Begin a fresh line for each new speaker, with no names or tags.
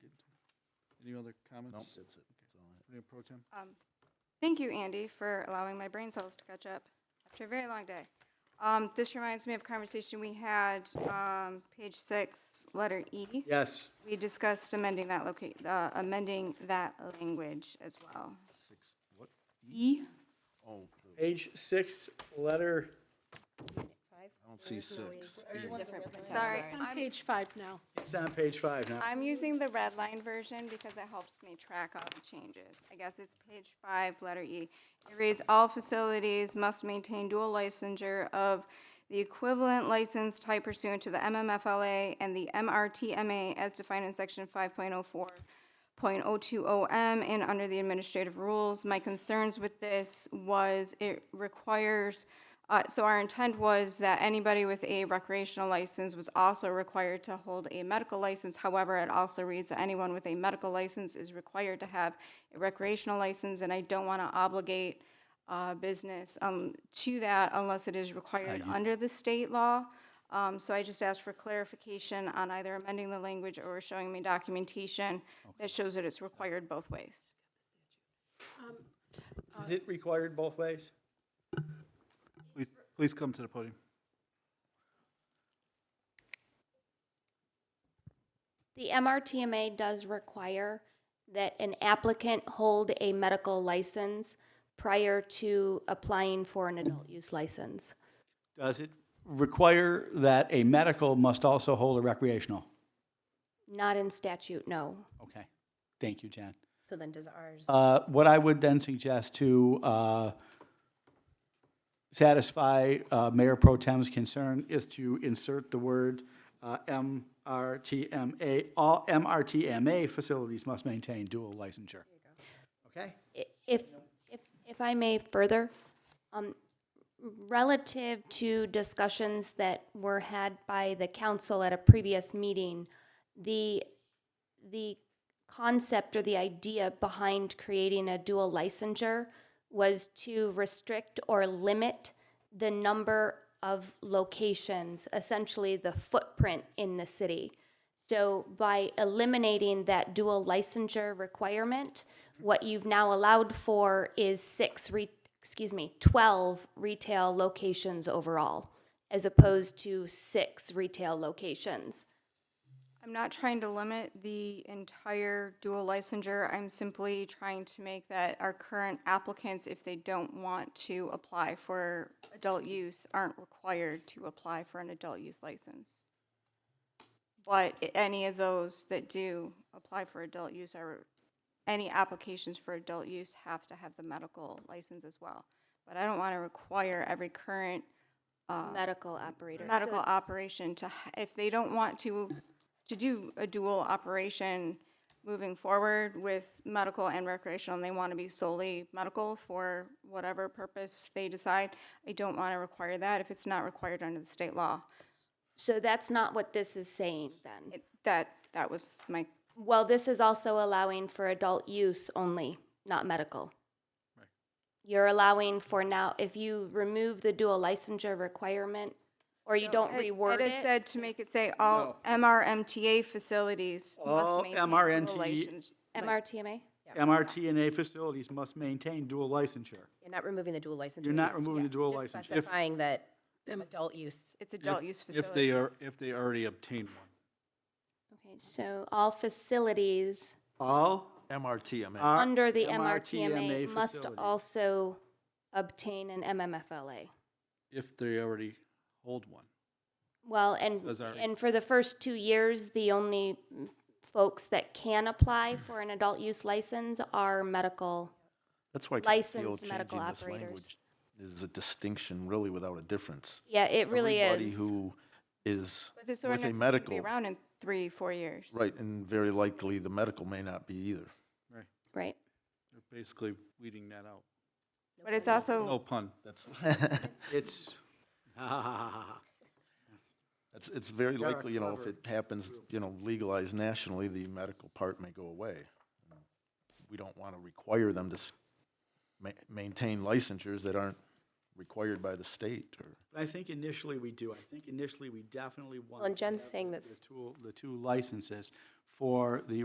Any other
Nope,
comments?
that's it. That's all I have.
Mayor Pro Tem?
Thank you, Andy, for allowing my brain cells to catch up after a very long day. Um, this reminds me of a conversation we had, um, page six, letter E.
Yes.
We discussed amending that locate, uh, amending that language as well.
Six, what?
E?
Oh, the-
Page six, letter,
I don't see six.
Sorry,
It's on page five now.
it's on page five now.
I'm using the red line version because it helps me track all the changes. I guess it's page five, letter E. It reads, "All facilities must maintain dual licensure of the equivalent license type pursuant to the MMFLA and the MRTMA as defined in section 5.04.020M and under the administrative rules." My concerns with this was it requires uh, so our intent was that anybody with a recreational license was also required to hold a medical license. However, it also reads that anyone with a medical license is required to have a recreational license, and I don't want to obligate uh, business um, to that unless it is required under the state law. Um, So I just asked for clarification on either amending the language or showing me documentation that shows that it's required both ways.
Is it required both ways?
Please, please come to the podium.
The MRTMA does require that an applicant hold a medical license prior to applying for an adult use license.
Does it require that a medical must also hold a recreational?
Not in statute, no.
Okay, thank you, Jen.
So then does ours.
Uh, What I would then suggest to uh, satisfy uh, Mayor Pro Tem's concern is to insert the word uh, MRTMA, all MRTMA facilities must maintain dual licensure. Okay?
I- If, if, if I may further, um, relative to discussions that were had by the council at a previous meeting, the, the concept or the idea behind creating a dual licensure was to restrict or limit the number of locations, essentially the footprint in the city. So by eliminating that dual licensure requirement, what you've now allowed for is six re, excuse me, twelve retail locations overall, as opposed to six retail locations.
I'm not trying to limit the entire dual licensure. I'm simply trying to make that our current applicants, if they don't want to apply for adult use, aren't required to apply for an adult use license. But i- any of those that do apply for adult use are, any applications for adult use have to have the medical license as well. But I don't want to require every current
Medical operator.
medical operation to, h- if they don't want to, to do a dual operation moving forward with medical and recreational, and they want to be solely medical for whatever purpose they decide, I don't want to require that if it's not required under the state law.
So that's not what this is saying then.
It- That, that was my,
Well, this is also allowing for adult use only, not medical. You're allowing for now, if you remove the dual licensure requirement, or you don't
it
reword
it
it,
said to make it say all MRMTA facilities must
All
maintain dual
MRNT
license-
MRTMA?
MRTNA facilities must maintain dual licensure.
You're not removing the dual license.
You're not removing the dual
Just
licensure. If-
specifying that adult use.
It's adult use
If they are,
facilities.
if they already obtained one.
Okay, so all facilities
All
MRTMA.
Uh,
are
under the MRTMA
MRTMA
must
facilities.
also obtain an MMFLA.
If they already hold one.
Well, and,
Those are-
and for the first two years, the only folks that can apply for an adult use license are medical.
That's why I kinda feel
licensed medical
changing this
operators.
language is a distinction really without a difference.
Yeah, it really is.
Everybody who is
But
with
this
a
ordinance is going to be
medical,
around in three, four years.
right, and very likely the medical may not be either.
Right.
They're basically weeding that out.
But it's also.
No pun.
That's,
It's, ha, ha, ha, ha, ha.
that's, it's very
Sarah,
likely, you know, if
clever.
it happens, you know, legalized nationally, the medical part may go away. We don't want to require them to s- ma- maintain licensures that aren't required by the state or.
I think initially we do. I think initially we definitely want.
and Jen's
to have
saying
the-
that's-
The two, the two licenses for the